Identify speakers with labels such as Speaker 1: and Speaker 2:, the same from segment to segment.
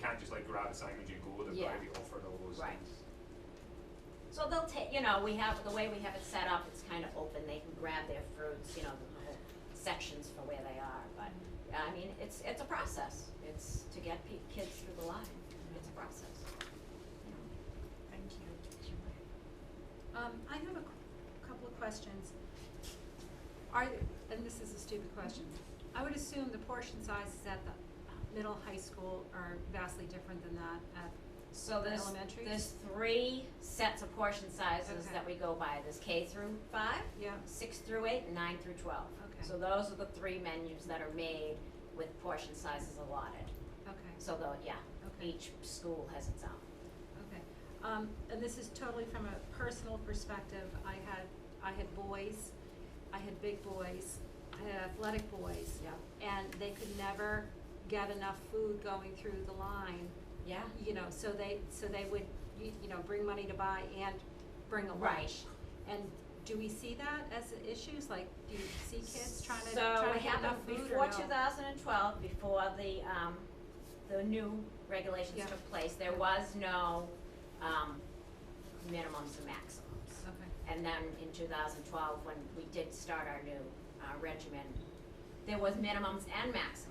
Speaker 1: can't just like grab a sandwich and go, they've
Speaker 2: Yeah.
Speaker 1: gotta be offered all those things.
Speaker 2: Right. So they'll take, you know, we have, the way we have it set up, it's kind of open, they can grab their fruits, you know, the whole sections for where they are, but, I mean, it's, it's a process, it's to get pe- kids through the line, it's a process.
Speaker 3: Thank you. Um, I have a cou- couple of questions. Are, th- and this is a stupid question, I would assume the portion sizes at the middle high school are vastly different than that at,
Speaker 2: So there's,
Speaker 3: Elementary?
Speaker 2: there's three sets of portion sizes
Speaker 3: Okay.
Speaker 2: that we go by, there's K through five,
Speaker 3: yeah,
Speaker 2: six through eight, and nine through twelve.
Speaker 3: Okay.
Speaker 2: So those are the three menus that are made with portion sizes allotted,
Speaker 3: okay,
Speaker 2: so though, yeah,
Speaker 3: Okay.
Speaker 2: each school has its own.
Speaker 3: okay. Um, and this is totally from a personal perspective, I had, I had boys, I had big boys, I had athletic boys.
Speaker 2: Yeah.
Speaker 3: And they could never get enough food going through the line
Speaker 2: Yeah.
Speaker 3: you know, so they, so they would, you, you know, bring money to buy and bring a lunch.
Speaker 2: Right.
Speaker 3: And do we see that as issues, like, do you see kids trying to,
Speaker 2: So
Speaker 3: trying
Speaker 2: it
Speaker 3: to get enough
Speaker 2: happened
Speaker 3: food
Speaker 2: before two thousand and twelve, before the, um, the new regulations
Speaker 3: Yeah.
Speaker 2: took place, there was no, um, minimums and maximums.
Speaker 3: Okay,
Speaker 2: And then in two thousand twelve, when we did start our new, uh, regimen, there was minimums and maximums,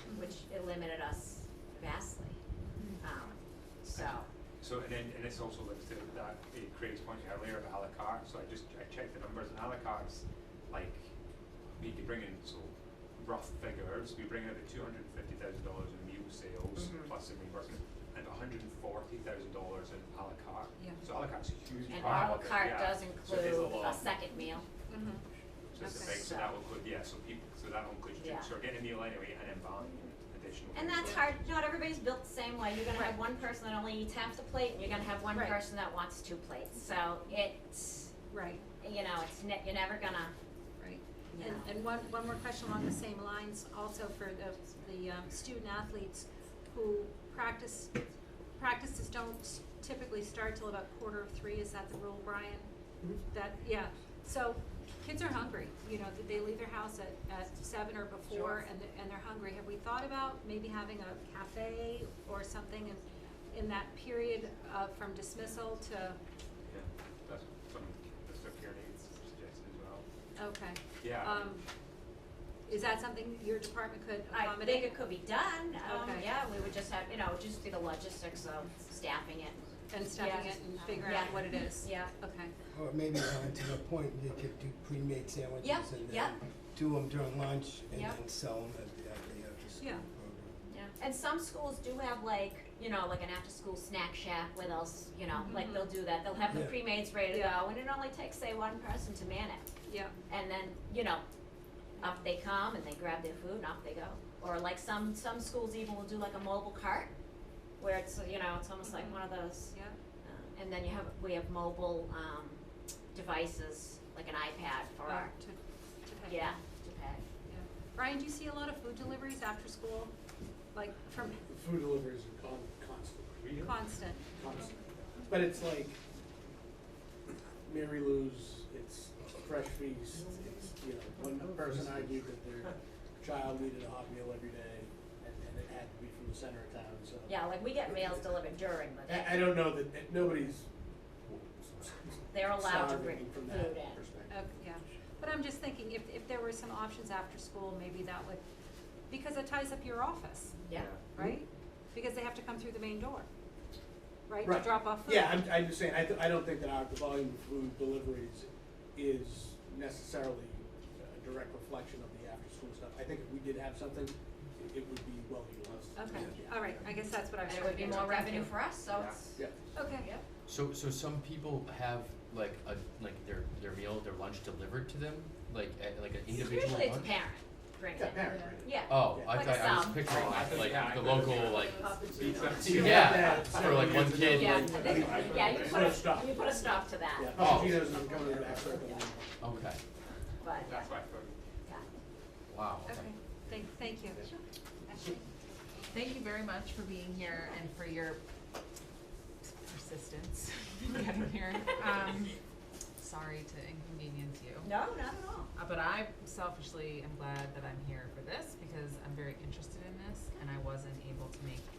Speaker 3: Mm-hmm.
Speaker 2: which it limited us vastly, um, so,
Speaker 1: So, and then, and this also links to that, eh, Craig's point earlier about à la carte, so I just, I checked the numbers, and à la carte's like, we could bring in, so, rough figures, we bring in about two hundred and fifty thousand dollars in meal sales,
Speaker 2: Mhm.
Speaker 1: plus in reimbursement, and hundred and forty thousand dollars in à la carte.
Speaker 3: Yeah.
Speaker 1: So à la carte's a huge
Speaker 2: and
Speaker 1: part
Speaker 2: à la
Speaker 1: of it,
Speaker 2: carte
Speaker 1: yeah.
Speaker 2: does
Speaker 1: So it is a
Speaker 2: include
Speaker 1: lot.
Speaker 2: a second meal,
Speaker 3: mhm,
Speaker 1: So it's a
Speaker 3: Okay.
Speaker 1: big, so that will include, yeah, so people, so that will include,
Speaker 2: Yeah.
Speaker 1: drinks, so we're getting a meal anyway, and then buying additional.
Speaker 2: And
Speaker 1: things.
Speaker 2: that's hard, not everybody's built the same way, you're gonna have one person that only eats half the plate, and you're gonna have one
Speaker 3: Right.
Speaker 2: person that wants two plates, so it's,
Speaker 3: right,
Speaker 2: you know, it's ne- you're never gonna,
Speaker 3: right.
Speaker 2: you
Speaker 3: And,
Speaker 2: know.
Speaker 3: and one, one more question along the same lines, also for the, the, um, student athletes who practice, practices don't typically start till about quarter of three, is that the rule, Brian? That, yeah, so kids are hungry, you know, that they leave their house at, at seven or
Speaker 2: Sure.
Speaker 3: before and, they're- and they're hungry. Have we thought about maybe having a cafe or something in, in that period, uh, from dismissal to,
Speaker 1: Yeah, that's something, that's what Karen had suggested as well.
Speaker 3: okay.
Speaker 1: Yeah.
Speaker 3: Um, is that something your department could
Speaker 2: I
Speaker 3: accommodate?
Speaker 2: think it could be done, um,
Speaker 3: Okay.
Speaker 2: yeah, we would just have, you know, just do the logistics of staffing it,
Speaker 3: and stuffing
Speaker 2: Yeah.
Speaker 3: it and figuring out
Speaker 2: Um, Yeah.
Speaker 3: what it is.
Speaker 2: yeah.
Speaker 3: Okay,
Speaker 4: Or maybe uh, to the point, you could do pre-made sandwiches
Speaker 2: Yeah,
Speaker 4: and then
Speaker 2: yeah.
Speaker 4: do them during lunch and
Speaker 2: Yeah.
Speaker 4: then sell them at the, at the after school
Speaker 3: Yeah.
Speaker 4: program.
Speaker 2: Yeah, and some schools do have like, you know, like an after-school snack shack where they'll, s- you know, like
Speaker 3: Mhm.
Speaker 2: they'll do that, they'll have the
Speaker 4: Yeah.
Speaker 2: pre-mades ready to
Speaker 3: Yeah.
Speaker 2: go, and it only takes, say, one person to man it.
Speaker 3: yeah,
Speaker 2: and then you know up they come and they grab their food and off they go or like some some schools even will do like a mobile cart where it's you know it's almost like one of those
Speaker 3: yeah,
Speaker 2: uh, and then you have we have mobile um, devices like an ipad for
Speaker 3: uh,
Speaker 2: our
Speaker 3: to, to pay.
Speaker 2: yeah to pay
Speaker 3: Yeah. Brian, do you see a lot of food deliveries after school? Like from
Speaker 5: Food deliveries are con- constant,
Speaker 1: Really?
Speaker 3: constant,
Speaker 5: constant. But it's like Mary Lou's, it's Fresh Feast, it's, you know, one person argued that their child needed a hot meal every day and, and it had to be from the center of town, so.
Speaker 2: yeah like we get meals delivered during the day
Speaker 5: I, I don't know that, that nobody's.
Speaker 2: they're allowed to
Speaker 5: starving
Speaker 2: bring
Speaker 5: From
Speaker 2: food
Speaker 5: that
Speaker 2: in
Speaker 5: perspective.
Speaker 3: okay, yeah. But I'm just thinking if, if there were some options after school, maybe that would, because it ties up your office,
Speaker 2: yeah
Speaker 5: Hmm?
Speaker 3: right? Because they have to come through the main door, right, to
Speaker 5: Right.
Speaker 3: drop off food?
Speaker 5: Yeah, I'm, I'm just saying, I, th- I don't think that our, the volume of food deliveries is necessarily a direct reflection of the after-school stuff. I think if we did have something, it, it would be well utilized.
Speaker 3: Okay,
Speaker 5: Yeah.
Speaker 3: all right, I guess that's what I was
Speaker 2: and it
Speaker 3: trying
Speaker 2: would
Speaker 3: to
Speaker 2: be
Speaker 3: get
Speaker 2: more
Speaker 3: at. Thank
Speaker 2: revenue
Speaker 3: you.
Speaker 2: for us so
Speaker 1: Yeah.
Speaker 2: it's
Speaker 5: Yeah,
Speaker 3: Okay,
Speaker 2: yep.
Speaker 6: So so some people have like a like their their meal their lunch delivered to them like at, like an individual
Speaker 2: usually it's
Speaker 6: lunch.
Speaker 2: parent bringing
Speaker 5: yeah,
Speaker 2: it
Speaker 5: parent,
Speaker 2: yeah
Speaker 6: Oh, I
Speaker 2: Like
Speaker 6: thought I was
Speaker 2: some.
Speaker 6: picturing
Speaker 1: Oh, I thought-
Speaker 6: like
Speaker 1: yeah, I
Speaker 6: the
Speaker 1: could-
Speaker 6: local like
Speaker 1: Yeah.
Speaker 6: Yeah, for like one kid,
Speaker 2: yeah, I
Speaker 6: like-
Speaker 2: think, yeah, you put
Speaker 5: Put a
Speaker 2: a,
Speaker 5: stop.
Speaker 2: you put a stop to that,
Speaker 5: Yeah,
Speaker 6: Oh.
Speaker 5: Pacino's not coming to the back circle.
Speaker 6: okay.
Speaker 2: but, yeah,
Speaker 1: That's why I thought.
Speaker 2: yeah.
Speaker 6: Wow.
Speaker 3: okay, thank, thank you. Ashley?
Speaker 7: Thank you very much for being here and for your persistence in getting here. Um, sorry to inconvenience you.
Speaker 2: No, not at all.
Speaker 7: Uh, but I selfishly am glad that I'm here for this because I'm very interested in this and I wasn't able to make